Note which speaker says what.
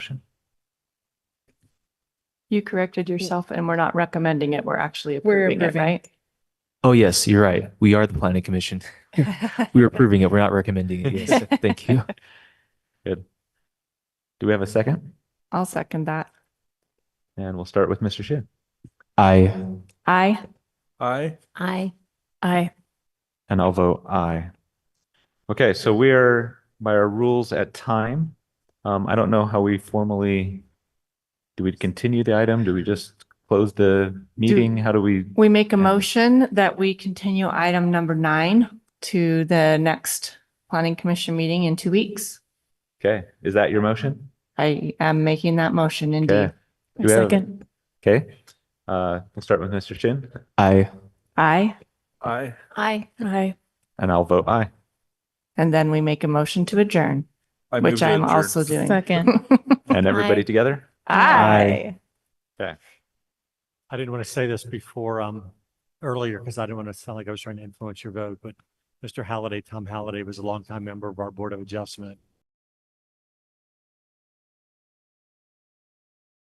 Speaker 1: You corrected yourself and we're not recommending it. We're actually
Speaker 2: We're
Speaker 1: approving it,
Speaker 2: approving.
Speaker 1: right?
Speaker 3: Oh, yes, you're right. We are the planning commission. We're approving it. We're not recommending it. Yes, thank you.
Speaker 4: Good. Do we have a second?
Speaker 1: I'll second that.
Speaker 4: And we'll start with Mr. Shin.
Speaker 3: I,
Speaker 1: Aye.
Speaker 5: Aye.
Speaker 2: Aye.
Speaker 1: Aye.
Speaker 4: And I'll vote aye. Okay, so we are by our rules at time. Um, I don't know how we formally, do we continue the item? Do we just close the meeting? How do we?
Speaker 1: We make a
Speaker 4: Yeah.
Speaker 1: motion that we continue item number nine to the next planning commission meeting in two weeks.
Speaker 4: Okay, is that your motion?
Speaker 1: I am making that motion indeed.
Speaker 4: Okay. Do we have- Okay, uh, we'll start with Mr. Shin
Speaker 3: I,
Speaker 1: Aye.
Speaker 5: Aye.
Speaker 2: Aye.
Speaker 1: Aye.
Speaker 4: and I'll vote aye.
Speaker 1: And then we make a motion to adjourn,
Speaker 5: I move
Speaker 1: which
Speaker 5: to
Speaker 1: I'm
Speaker 5: adjourn.
Speaker 1: also doing.
Speaker 2: Second.
Speaker 4: And everybody
Speaker 2: Aye.
Speaker 4: together?
Speaker 1: Aye.
Speaker 6: I didn't want to say this before, um, earlier, because I didn't want to sound like I was trying to influence your vote, but Mr. Halliday, Tom Halliday was a longtime member of our Board of Adjustment.